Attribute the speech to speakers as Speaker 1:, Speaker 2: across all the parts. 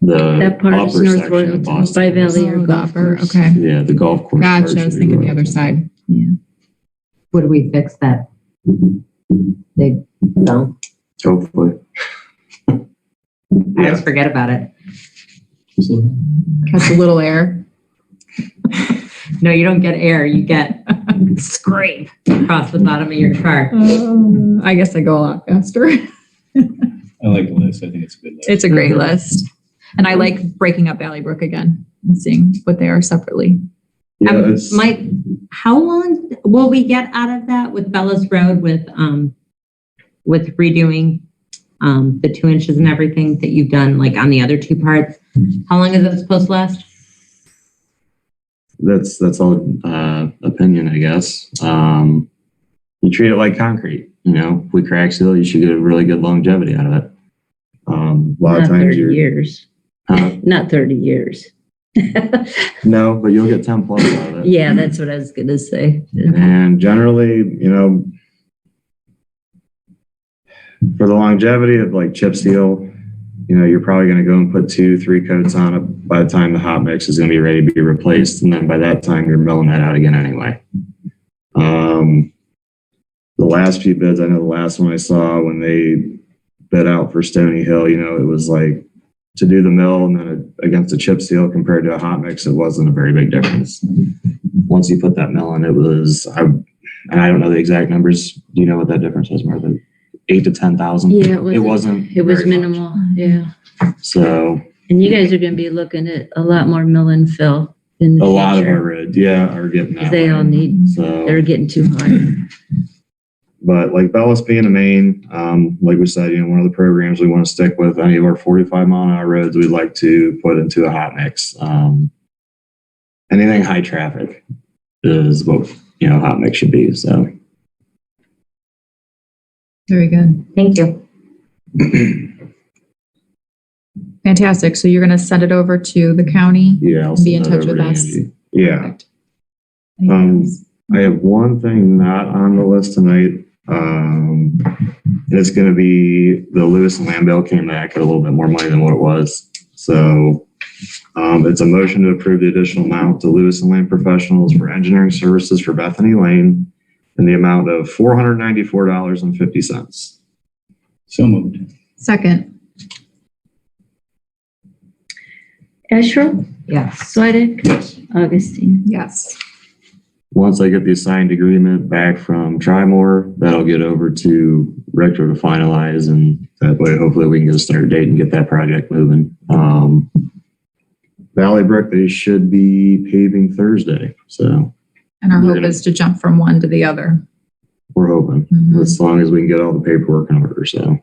Speaker 1: the
Speaker 2: That part is
Speaker 1: upper
Speaker 2: North
Speaker 1: section of
Speaker 2: Royalton, By
Speaker 1: Boston.
Speaker 2: Valley or
Speaker 3: Oh,
Speaker 2: golf
Speaker 3: golfer,
Speaker 2: course.
Speaker 3: Okay.
Speaker 1: Yeah, the golf course.
Speaker 3: Gotcha. I was thinking the other side.
Speaker 4: Would we fix that? They don't.
Speaker 1: Hopefully.
Speaker 4: I always forget about it.
Speaker 3: Catch a little air.
Speaker 4: No, you don't get air. You get scrape across the bottom of your car.
Speaker 3: Uh, I guess I go a lot faster.
Speaker 5: I like the list. I think it's a good list.
Speaker 3: It's a
Speaker 1: Mm-hmm.
Speaker 3: great list. And I like breaking up Valley Brook again and seeing what they are separately.
Speaker 4: Um,
Speaker 1: Yeah, it's,
Speaker 4: Mike, how long will we get out of that with Bellows Road with, um, with redoing, um, the two inches and everything that you've done, like on the other two parts? How long is that supposed to last?
Speaker 1: that's, that's all, uh, opinion, I guess. Um, you treat it like concrete, you know, if we crack seal, you should get a really good longevity out of it. Um, a lot
Speaker 2: Not
Speaker 1: of times
Speaker 2: 30
Speaker 1: you're,
Speaker 2: years,
Speaker 1: huh?
Speaker 2: not 30 years.
Speaker 1: no, but you'll get 10 plus out of it.
Speaker 2: Yeah, that's what I was gonna say.
Speaker 1: And generally, you know, for the longevity of like chip seal, you know, you're probably going to go and put two, three coats on it by the time the hot mix is going to be ready to be replaced. And then by that time, you're milling that out again anyway. Um, the last few bids, I know the last one I saw when they bid out for Stony Hill, you know, it was like to do the mill and then against a chip seal compared to a hot mix, it wasn't a very big difference once you put that mill in, it was, I, and I don't know the exact numbers. Do you know what that difference was, Martha? Eight to 10,000?
Speaker 2: Yeah, it
Speaker 1: It
Speaker 2: wasn't-
Speaker 1: wasn't.
Speaker 2: It was
Speaker 1: very much.
Speaker 2: minimal, yeah.
Speaker 1: So
Speaker 2: And you guys are gonna be looking at a lot more mill and fill in
Speaker 1: a
Speaker 2: the
Speaker 1: lot of our
Speaker 2: future.
Speaker 1: roads, yeah, are getting that.
Speaker 2: They
Speaker 1: way.
Speaker 2: all need, they're
Speaker 1: So,
Speaker 2: getting too high.
Speaker 1: but like Bellis being a main, um, like we said, you know, one of the programs we want to stick with, any of our 45 mile an hour roads, we'd like to put into a hot mix. Um, anything high traffic is what, you know, hot mix should be. So.
Speaker 3: Very good.
Speaker 4: Thank you.
Speaker 3: Fantastic. So you're going to send it over to the county?
Speaker 1: Yeah. I'll
Speaker 3: Be
Speaker 1: send
Speaker 3: in
Speaker 1: that
Speaker 3: touch
Speaker 1: over
Speaker 3: with
Speaker 1: to
Speaker 3: us.
Speaker 1: Angie. Yeah,
Speaker 3: Perfect. Anything
Speaker 1: Um,
Speaker 3: else?
Speaker 1: I have one thing not on the list tonight. Um, and it's gonna be the Lewis and Lambell came back at a little bit more money than what it was. So, um, it's a motion to approve the additional amount to Lewis and Lamb Professionals for engineering services for Bethany Lane in the amount of four hundred ninety-four dollars and fifty cents.
Speaker 5: So moved.
Speaker 3: Second,
Speaker 2: Asherle,
Speaker 4: Yes.
Speaker 2: Swedek,
Speaker 5: Yes.
Speaker 2: Augustine.
Speaker 3: yes.
Speaker 1: Once I get the signed agreement back from Trimore, that'll get over to Rector to finalize and that way hopefully we can get a start date and get that project moving. Um, Valley Brook, they should be paving Thursday, so
Speaker 3: And our
Speaker 1: We're
Speaker 3: hope
Speaker 1: gonna-
Speaker 3: is to jump from one to the other.
Speaker 1: we're hoping,
Speaker 3: Mhm.
Speaker 1: Mm-hmm. as long as we can get all the paperwork in order, so.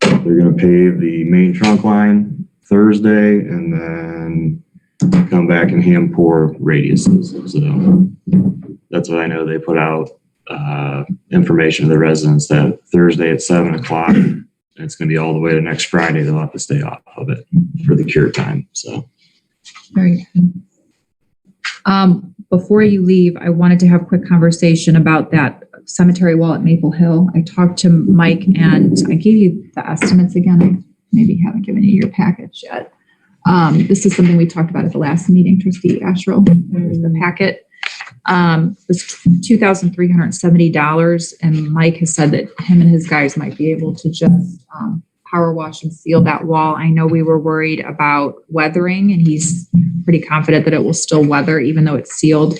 Speaker 1: They're gonna pave the main trunk line Thursday and then come back and hand pour radiuses, so. That's what I know, they put out, uh, information to the residents that Thursday at seven o'clock, and it's gonna be all the way to next Friday, they'll have to stay off of it for the cure time, so.
Speaker 3: Very good. Um, before you leave, I wanted to have a quick conversation about that cemetery wall at Maple Hill. I talked to Mike and I gave you the estimates again. I maybe haven't given you your package yet. Um, this is something we talked about at the last meeting, trustee Asherle, There's the packet. Um, was two thousand three hundred and seventy dollars and Mike has said that him and his guys might be able to just, um, power wash and seal that wall. I know we were worried about weathering and he's pretty confident that it will still weather, even though it's sealed.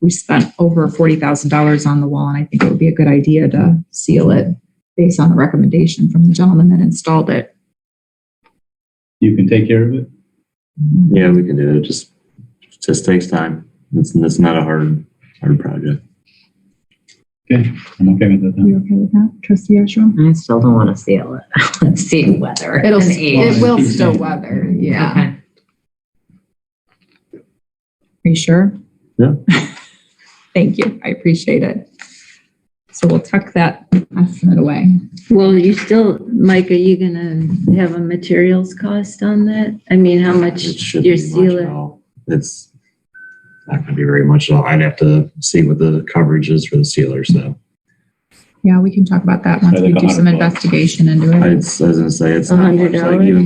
Speaker 3: We spent over forty thousand dollars on the wall, and I think it would be a good idea to seal it based on the recommendation from the gentleman that installed it.
Speaker 5: You can take care of it.
Speaker 1: Yeah, we can do it. It Just, just takes time. It's, it's not a hard, hard project.
Speaker 5: I'm okay with that. then.
Speaker 3: You okay with that, trustee Asherle?
Speaker 4: I still don't want to seal it. Let's see whether.
Speaker 3: It'll,
Speaker 4: an
Speaker 3: it
Speaker 4: age.
Speaker 3: will still weather, yeah.
Speaker 4: Okay.
Speaker 3: Are you sure?
Speaker 1: Yeah.
Speaker 3: Thank you, I appreciate it. So we'll tuck that estimate away.
Speaker 2: Well, you still, Mike, are you gonna have a materials cost on that? I mean, how much
Speaker 1: It shouldn't
Speaker 2: your
Speaker 1: be much at
Speaker 2: sealer?
Speaker 1: all. It's not gonna be very much at all. I'd have to see what the coverage is for the sealer, so.
Speaker 3: Yeah, we can talk about that once we
Speaker 5: like
Speaker 3: do some
Speaker 5: 100 bucks.
Speaker 3: investigation into it.
Speaker 1: I was gonna say, it's not much, like
Speaker 2: $100?
Speaker 1: even